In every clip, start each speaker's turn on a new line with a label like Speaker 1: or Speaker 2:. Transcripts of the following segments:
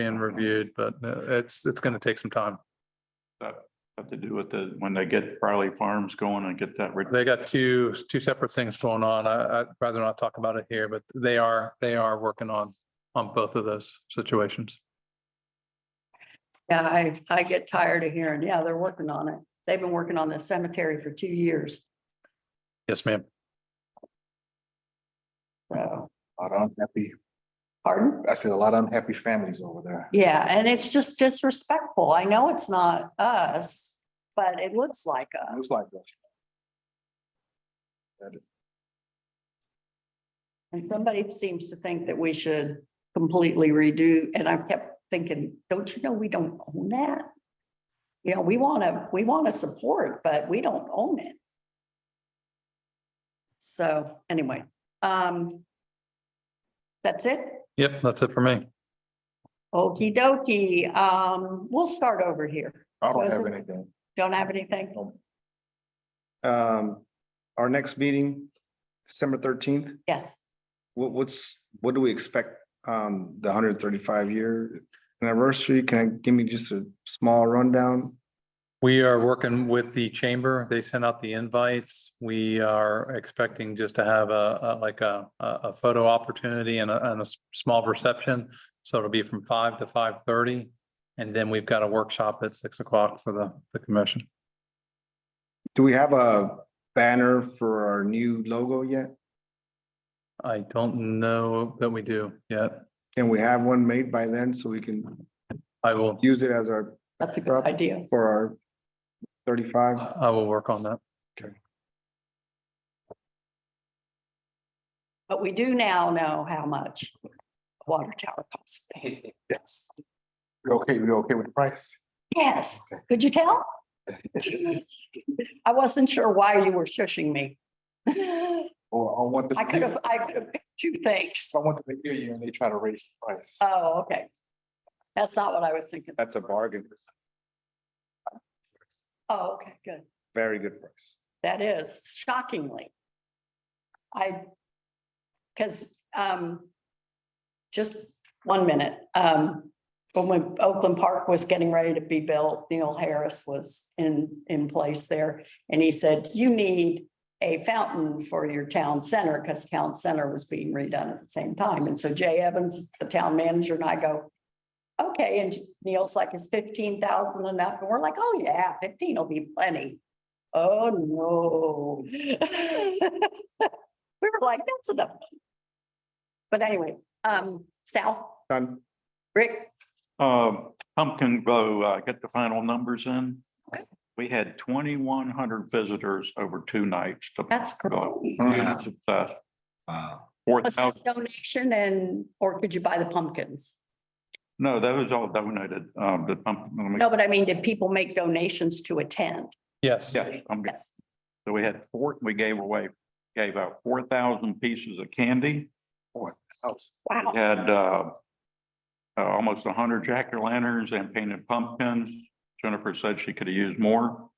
Speaker 1: being reviewed, but uh, it's, it's going to take some time.
Speaker 2: Have to do with the, when they get Farley Farms going and get that, rid-
Speaker 1: They got two, two separate things going on. I, I'd rather not talk about it here, but they are, they are working on, on both of those situations.
Speaker 3: Yeah, I, I get tired of hearing, yeah, they're working on it. They've been working on this cemetery for two years,
Speaker 1: Yes, ma'am.
Speaker 3: so,
Speaker 4: A lot of unhappy,
Speaker 3: pardon?
Speaker 4: I said a lot of unhappy families over there.
Speaker 3: Yeah, and it's just disrespectful. I know it's not us, but it looks like
Speaker 4: It
Speaker 3: us.
Speaker 4: was like that.
Speaker 3: And somebody seems to think that we should completely redo, and I kept thinking, don't you know, we don't own that? You know, we want to, we want to support, but we don't own it. So anyway, um, that's it.
Speaker 1: Yep, that's it for me.
Speaker 3: Okey dokey, um, we'll start over here.
Speaker 4: I don't have
Speaker 3: Wasn't-
Speaker 4: anything.
Speaker 3: Don't have anything?
Speaker 5: Um, our next meeting, December thirteenth,
Speaker 3: Yes,
Speaker 5: what, what's, what do we expect? Um, the hundred and thirty-five year anniversary, can I, give me just a small rundown?
Speaker 1: We are working with the chamber. They sent out the invites. We are expecting just to have a, a- like a, a a photo opportunity and a, and a s- small reception. So it'll be from five to five thirty. And then we've got a workshop at six o'clock for the, the commission.
Speaker 5: Do we have a banner for our new logo yet?
Speaker 1: I don't know that we do yet.
Speaker 5: Can we have one made by then so we can
Speaker 1: I will,
Speaker 5: use it as our,
Speaker 3: that's a good idea.
Speaker 5: for our thirty-five?
Speaker 1: I will work on that.
Speaker 3: But we do now know how much water tower costs.
Speaker 4: Yes. You okay, you okay with the price?
Speaker 3: Yes, could you tell? I wasn't sure why you were shushing me. I
Speaker 4: Or I want the.
Speaker 3: could have, I could have picked two things.
Speaker 4: I want them to hear you and they try to raise the price.
Speaker 3: Oh, okay. That's not what I was thinking.
Speaker 5: That's a bargain,
Speaker 3: Oh, okay, good.
Speaker 5: very good price.
Speaker 3: That is shockingly. I, because, um, just one minute, um, but when Oakland Park was getting ready to be built, Neil Harris was in, in place there. And he said, you need a fountain for your town center, because town center was being redone at the same time. And so Jay Evans, the town manager, and I go, okay, and Neil's like, is fifteen thousand enough? And we're like, oh, yeah, fifteen will be plenty. Oh, no. We were like, that's enough. But anyway, um, Sal,
Speaker 5: Done,
Speaker 3: Rick,
Speaker 2: um, Pumpkin Glow, uh, get the final numbers in.
Speaker 3: Okay.
Speaker 2: We had twenty-one hundred visitors over two nights. to
Speaker 3: that's great.
Speaker 2: Huge success.
Speaker 4: Wow.
Speaker 2: Four
Speaker 3: Was it
Speaker 2: thousand,
Speaker 3: donation and, or could you buy the pumpkins?
Speaker 2: no, that was all donated, um, the pump. let me-
Speaker 3: No, but I mean, did people make donations to attend?
Speaker 1: Yes.
Speaker 2: Yes, I'm,
Speaker 3: Yes.
Speaker 2: so we had four, we gave away, gave out four thousand pieces of candy. We
Speaker 3: Wow,
Speaker 2: had uh, uh, almost hundred jack-o'-lanterns and painted pumpkins. Jennifer said she could have used more.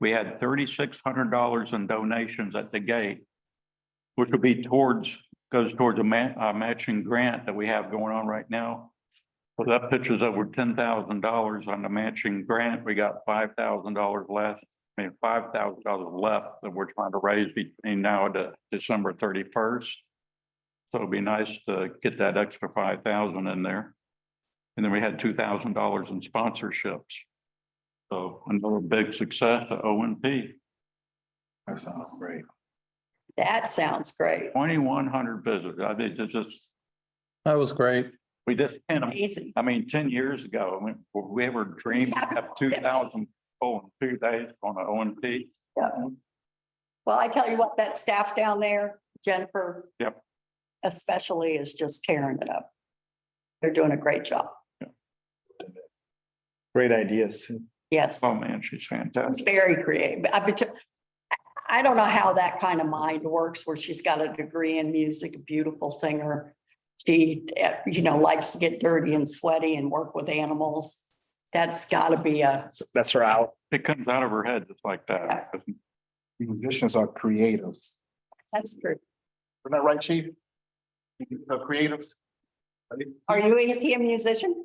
Speaker 2: We had thirty-six hundred dollars in donations at the gate, which would be towards, goes towards a ma- a matching grant that we have going on right now. So that pitches over ten thousand dollars on the matching grant. We got five thousand dollars less, I mean, five thousand dollars left that we're trying to raise between now and December thirty-first. So it'd be nice to get that extra five thousand in there. And then we had two thousand dollars in sponsorships. So another big success at O and P,
Speaker 4: That sounds great.
Speaker 3: that sounds great.
Speaker 2: twenty-one hundred visitors. I think it's just,
Speaker 1: That was great.
Speaker 2: we just can't,
Speaker 3: Amazing.
Speaker 2: I mean, ten years ago, we- would we ever dreamed of two thousand people in two days on an O and P?
Speaker 3: Yeah. Well, I tell you what, that staff down there, Jennifer.
Speaker 2: Yep.
Speaker 3: Especially is just tearing it up. They're doing a great job.
Speaker 5: great ideas.
Speaker 3: Yes.
Speaker 2: Oh, man, she's
Speaker 3: It's
Speaker 2: fantastic.
Speaker 3: very creative. I bet, you- I- I don't know how that kind of mind works where she's got a degree in music, a beautiful singer. She, eh, you know, likes to get dirty and sweaty and work with animals. That's gotta be a,
Speaker 5: That's her out.
Speaker 2: It comes out of her head just like that.
Speaker 4: Musicians are creatives.
Speaker 3: that's true.
Speaker 4: Isn't that right, chief? Are creatives?
Speaker 3: Are you a musician?